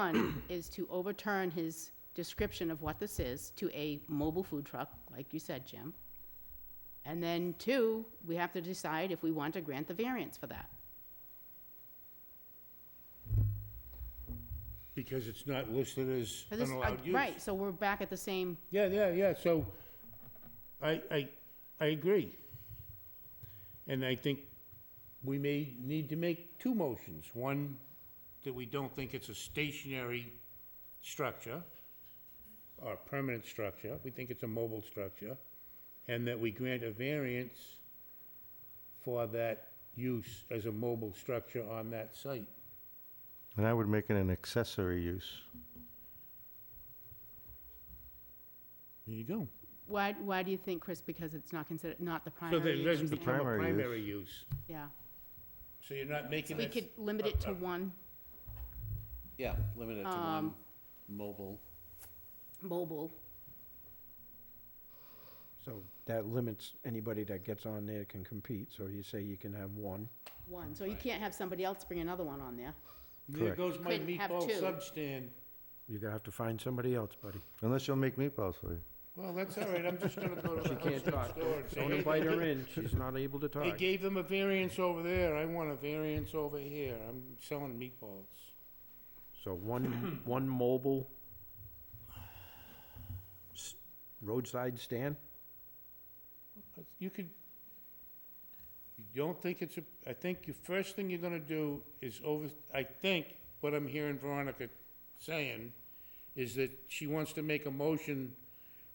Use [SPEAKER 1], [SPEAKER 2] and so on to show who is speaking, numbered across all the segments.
[SPEAKER 1] One is to overturn his description of what this is to a mobile food truck, like you said, Jim. And then two, we have to decide if we want to grant the variance for that.
[SPEAKER 2] Because it's not listed as
[SPEAKER 1] For
[SPEAKER 2] an
[SPEAKER 1] this-
[SPEAKER 2] allowed use.
[SPEAKER 1] uh, Right, so we're back at the same,
[SPEAKER 2] Yeah, yeah, yeah, so I, I, I agree. And I think we may need to make two motions. One, that we don't think it's a stationary structure or permanent structure, we think it's a mobile structure, and that we grant a variance for that use as a mobile structure on that site.
[SPEAKER 3] And I would make it an accessory use.
[SPEAKER 2] There you go.
[SPEAKER 1] why, why do you think, Chris, because it's not considered, not the
[SPEAKER 2] So
[SPEAKER 1] primary
[SPEAKER 2] that it
[SPEAKER 1] use? yeah.
[SPEAKER 2] doesn't become a
[SPEAKER 3] Primary use.
[SPEAKER 2] primary use.
[SPEAKER 1] Yeah,
[SPEAKER 2] So you're not making
[SPEAKER 1] we
[SPEAKER 2] it.
[SPEAKER 1] could limit it to
[SPEAKER 2] uh,
[SPEAKER 1] one
[SPEAKER 4] Yeah, limit it to
[SPEAKER 1] um,
[SPEAKER 4] one mobile.
[SPEAKER 1] mobile,
[SPEAKER 5] So that limits anybody that gets on there can compete, so you say you can have one.
[SPEAKER 1] one, so you can't have somebody else bring another one on there.
[SPEAKER 2] There
[SPEAKER 3] Correct.
[SPEAKER 2] goes my
[SPEAKER 1] Couldn't have
[SPEAKER 2] meatball
[SPEAKER 1] two.
[SPEAKER 2] substand.
[SPEAKER 5] You're gonna have to find somebody else, buddy.
[SPEAKER 3] Unless you'll make meatballs for you.
[SPEAKER 2] Well, that's all right, I'm just gonna go to the
[SPEAKER 5] She can't
[SPEAKER 2] hardware
[SPEAKER 5] talk.
[SPEAKER 2] store and say,
[SPEAKER 5] Don't
[SPEAKER 2] "Hey,
[SPEAKER 5] invite her in, she's not able to
[SPEAKER 2] They
[SPEAKER 5] talk.
[SPEAKER 2] gave them a variance over there, I want a variance over here, I'm selling meatballs.
[SPEAKER 5] So one, one mobile s- roadside stand?
[SPEAKER 2] You could, you don't think it's, a? I think your first thing you're gonna do is over, I think what I'm hearing Veronica saying is that she wants to make a motion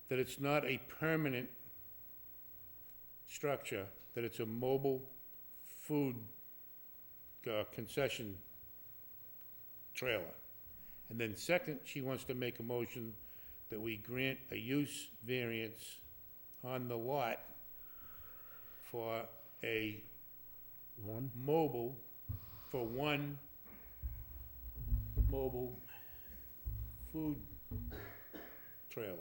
[SPEAKER 2] that it's not a permanent structure, that it's a mobile food uh, concession trailer. And then second, she wants to make a motion that we grant a use variance on the lot for a
[SPEAKER 5] One?
[SPEAKER 2] mobile, for one mobile food trailer,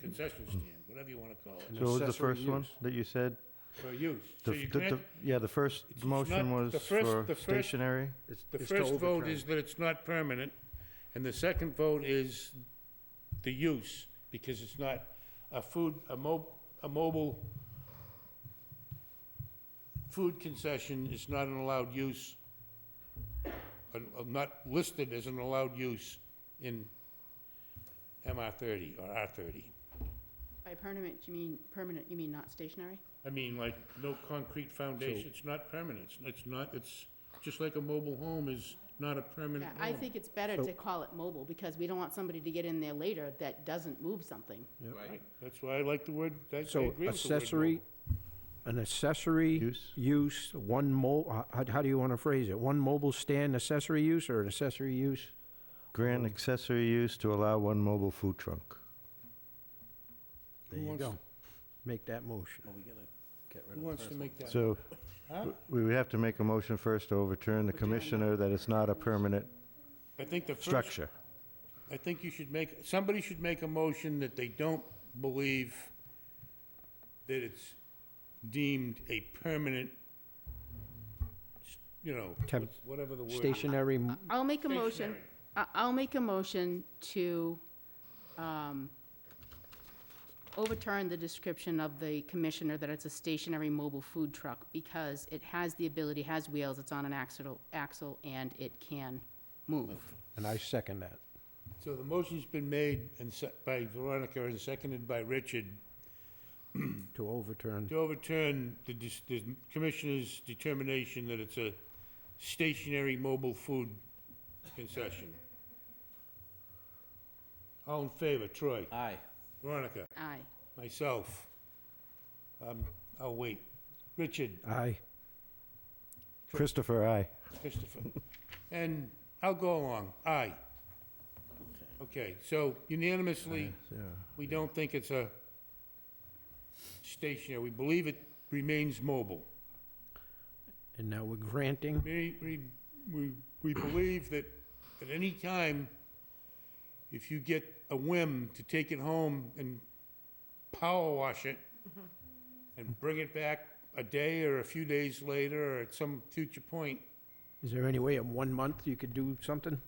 [SPEAKER 2] concession stand, whatever you want to call it,
[SPEAKER 5] An
[SPEAKER 3] So what was the
[SPEAKER 5] accessory
[SPEAKER 3] first one
[SPEAKER 5] use.
[SPEAKER 3] that you said?
[SPEAKER 2] for use. So
[SPEAKER 3] The
[SPEAKER 2] you
[SPEAKER 3] f- the- the-
[SPEAKER 2] grant,
[SPEAKER 3] Yeah, the first
[SPEAKER 2] It's- it's
[SPEAKER 3] motion
[SPEAKER 2] not-
[SPEAKER 3] was
[SPEAKER 2] the first-
[SPEAKER 3] for
[SPEAKER 2] the first-
[SPEAKER 3] stationary.
[SPEAKER 5] It's-
[SPEAKER 2] the
[SPEAKER 5] it's to
[SPEAKER 2] first vote
[SPEAKER 5] overturn.
[SPEAKER 2] is that it's not permanent, and the second vote is the use, because it's not a food, a mo, a mobile food concession is not an allowed use, uh, uh, not listed as an allowed use in MR thirty or R thirty.
[SPEAKER 1] By permanent, you mean, permanent, you mean not stationary?
[SPEAKER 2] I mean, like, no concrete foundation, it's not permanent, it's- it's not, it's, just like a mobile home is not a
[SPEAKER 1] Yeah,
[SPEAKER 2] permanent home.
[SPEAKER 1] I think it's better to call it mobile, because we don't want somebody to get in there later that doesn't move something.
[SPEAKER 2] Right, that's why I like the word, I I agree
[SPEAKER 5] So
[SPEAKER 2] with the word.
[SPEAKER 5] accessory, an accessory
[SPEAKER 3] Use.
[SPEAKER 5] use, one mo, uh, how, how do you wanna phrase it? One mobile stand accessory use or an accessory use?
[SPEAKER 3] Grant accessory use to allow one mobile food truck.
[SPEAKER 5] There you go. Make that motion.
[SPEAKER 4] Well, we gotta get
[SPEAKER 2] mobile.
[SPEAKER 4] rid
[SPEAKER 2] Who
[SPEAKER 4] of
[SPEAKER 2] wants
[SPEAKER 4] the
[SPEAKER 2] to
[SPEAKER 4] first one.
[SPEAKER 2] make that?
[SPEAKER 3] So
[SPEAKER 2] Huh?
[SPEAKER 3] we would have to make a motion first to overturn the commissioner that it's not a permanent
[SPEAKER 2] I think the first,
[SPEAKER 3] structure.
[SPEAKER 2] I think you should make, somebody should make a motion that they don't believe that it's deemed a permanent, you know,
[SPEAKER 5] Tem-
[SPEAKER 2] what's- whatever the word. is.
[SPEAKER 5] Stationary m-
[SPEAKER 1] I'll make a motion,
[SPEAKER 2] Stationary.
[SPEAKER 1] I- I'll make a motion to um, overturn the description of the commissioner that it's a stationary mobile food truck, because it has the ability, has wheels, it's on an axle, axle, and it can move.
[SPEAKER 5] And I second that.
[SPEAKER 2] So the motion's been made and se by Veronica and seconded by Richard
[SPEAKER 5] to overturn.
[SPEAKER 2] to overturn the, dis- the commissioner's determination that it's a stationary mobile food concession. All in favor, Troy,
[SPEAKER 4] Aye.
[SPEAKER 2] Veronica,
[SPEAKER 1] Aye.
[SPEAKER 2] myself. Um, I'll wait. Richard,
[SPEAKER 5] Aye.
[SPEAKER 3] Christopher, aye.
[SPEAKER 2] Christopher, and I'll go along, aye. Okay, so unanimously, we don't think it's a stationary, we believe it remains mobile.
[SPEAKER 5] And now we're granting,
[SPEAKER 2] We, we, we, we believe that at any time, if you get a whim to take it home and power wash it and bring it back a day or a few days later or at some future point,
[SPEAKER 5] is there any way in one month you could do something?